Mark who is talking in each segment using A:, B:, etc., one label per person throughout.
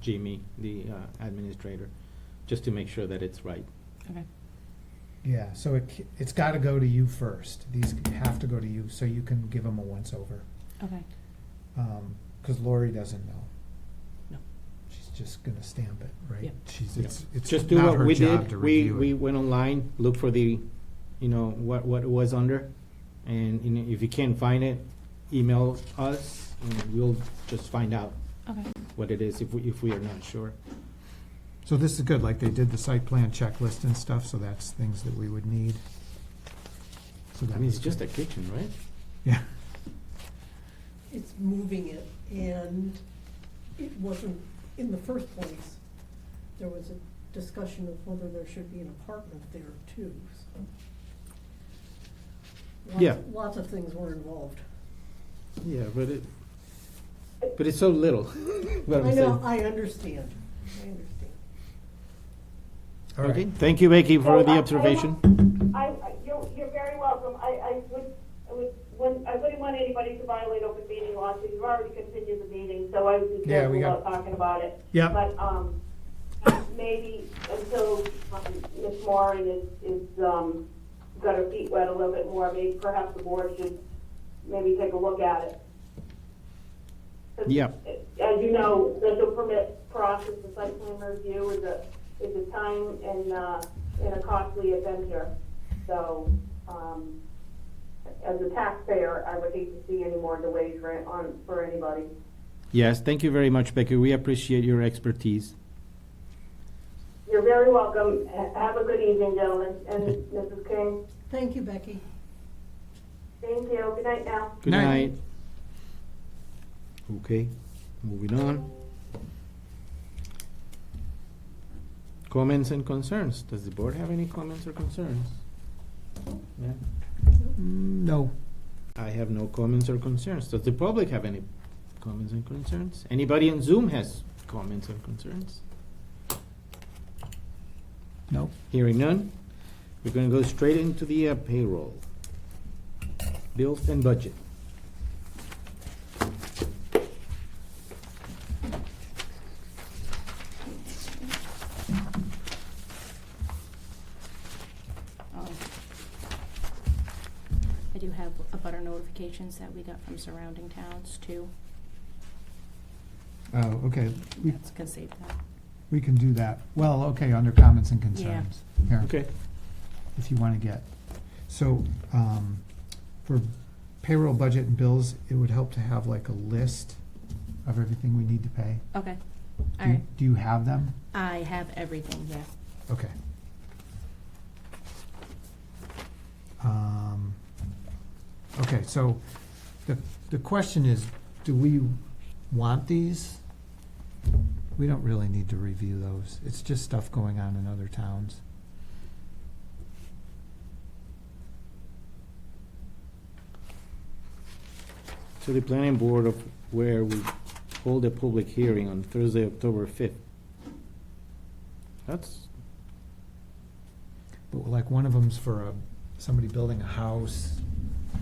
A: Jamie, the uh, administrator, just to make sure that it's right.
B: Okay.
C: Yeah, so it, c- it's gotta go to you first. These have to go to you, so you can give them a once-over.
B: Okay.
C: Um, cause Lori doesn't know.
B: No.
C: She's just gonna stamp it,
B: Yeah.
C: right? She's,
A: Yeah.
C: it's, it's
A: Just do
C: not
A: what
C: her
A: we
C: job
A: did.
C: to
A: We,
C: review
A: we
C: it.
A: went online, looked for the, you know, what, what it was under. And you know, if you can't find it, email us and we'll just find out
B: Okay.
A: what it is if we, if we are not sure.
C: So this is good, like they did the site plan checklist and stuff, so that's things that we would need. So
A: I
C: that
A: mean, it's
C: was
A: just a
C: good.
A: kitchen, right?
C: Yeah,
D: it's moving it, and it wasn't, in the first place, there was a discussion of whether there should be an apartment there too, so. Lots-
A: Yeah.
D: Lots of things were involved.
A: Yeah, but it, but it's so little. what I'm
D: I know,
A: saying.
D: I understand, I understand.
C: all
A: Okay,
C: right.
A: thank you, Becky, for
E: So,
A: the
E: I- I
A: observation.
E: I, I- you're, you're very welcome. I, I would, I would, when, I wouldn't want anybody to violate open meeting law, so you've already continued the meeting, so I would be
C: Yeah, we
E: careful about
C: got-
E: talking about it.
C: Yep.
E: But, um, maybe until um, Ms. Moran is, is, um, got her feet wet a little bit more, maybe perhaps the board should maybe take a look at it. 'Cause
A: Yep.
E: as you know, special permit process, the site plan review is a, is a time and, uh, and a costly adventure. So, um, as a taxpayer, I would hate to see any more delays for, on, for anybody.
A: Yes, thank you very much, Becky. We appreciate your expertise.
E: You're very welcome. Ha- Have a good evening, gentlemen, and Mrs. King.
D: Thank you, Becky.
E: Thank you. Good night now.
A: Good night.
C: Night.
A: Okay, moving on. Comments and concerns. Does the board have any comments or concerns? Yeah,
C: Mm, No,
A: I have no comments or concerns. Does the public have any comments and concerns? Anybody on Zoom has comments or concerns?
C: no.
A: Hearing none, we're gonna go straight into the uh, payroll. Bills and budget.
B: Oh. I do have a butter notifications that we got from surrounding towns too.
C: Oh, okay, we,
B: That's gonna save that.
C: we can do that. Well, okay, under comments and concerns. Here.
A: Okay.
C: if you want to get. So, um, for payroll budget and bills, it would help to have like a list of everything we need to pay.
B: Okay.
C: Do
B: All
C: you-
B: right.
C: Do you have them?
B: I have everything, yeah.
C: Okay. Um, okay, so the, the question is, do we want these? We don't really need to review those. It's just stuff going on in other towns.
A: to the planning board of where we hold a public hearing on Thursday, October fifth. That's,
C: But like one of them's for a, somebody building a house.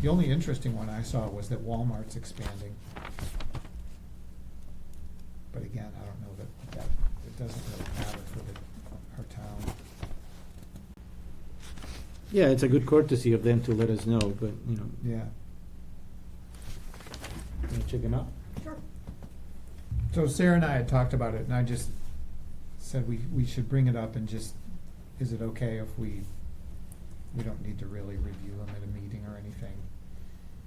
C: The only interesting one I saw was that Walmart's expanding. But again, I don't know that, that, it doesn't really matter for the, our town.
A: yeah, it's a good courtesy of them to let us know, but, you know,
C: Yeah.
A: you check them out.
D: Sure.
C: So Sarah and I had talked about it and I just said we, we should bring it up and just, is it okay if we, we don't need to really review them at a meeting or anything?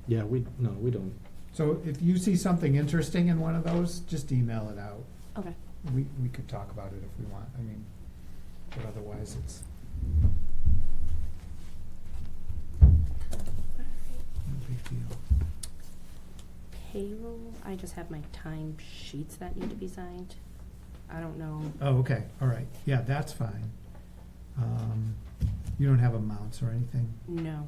A: Yeah, we, no, we don't.
C: So if you see something interesting in one of those, just email it out.
B: Okay.
C: We, we could talk about it if we want, I mean, but otherwise it's. No big deal.
B: Payroll, I just have my time sheets that need to be signed. I don't know.
C: Oh, okay, all right, yeah, that's fine. Um, you don't have amounts or anything?
B: No.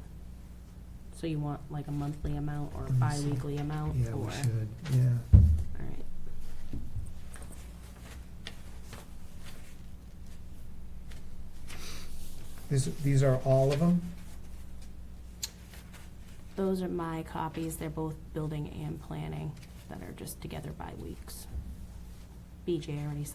B: So you want like a monthly amount or a
C: Let me see.
B: bi-weekly amount
C: Yeah,
B: or?
C: we should, yeah.
B: All right.
C: This, these are all of them?
B: Those are my copies. They're both building and planning that are just together by weeks. BJ already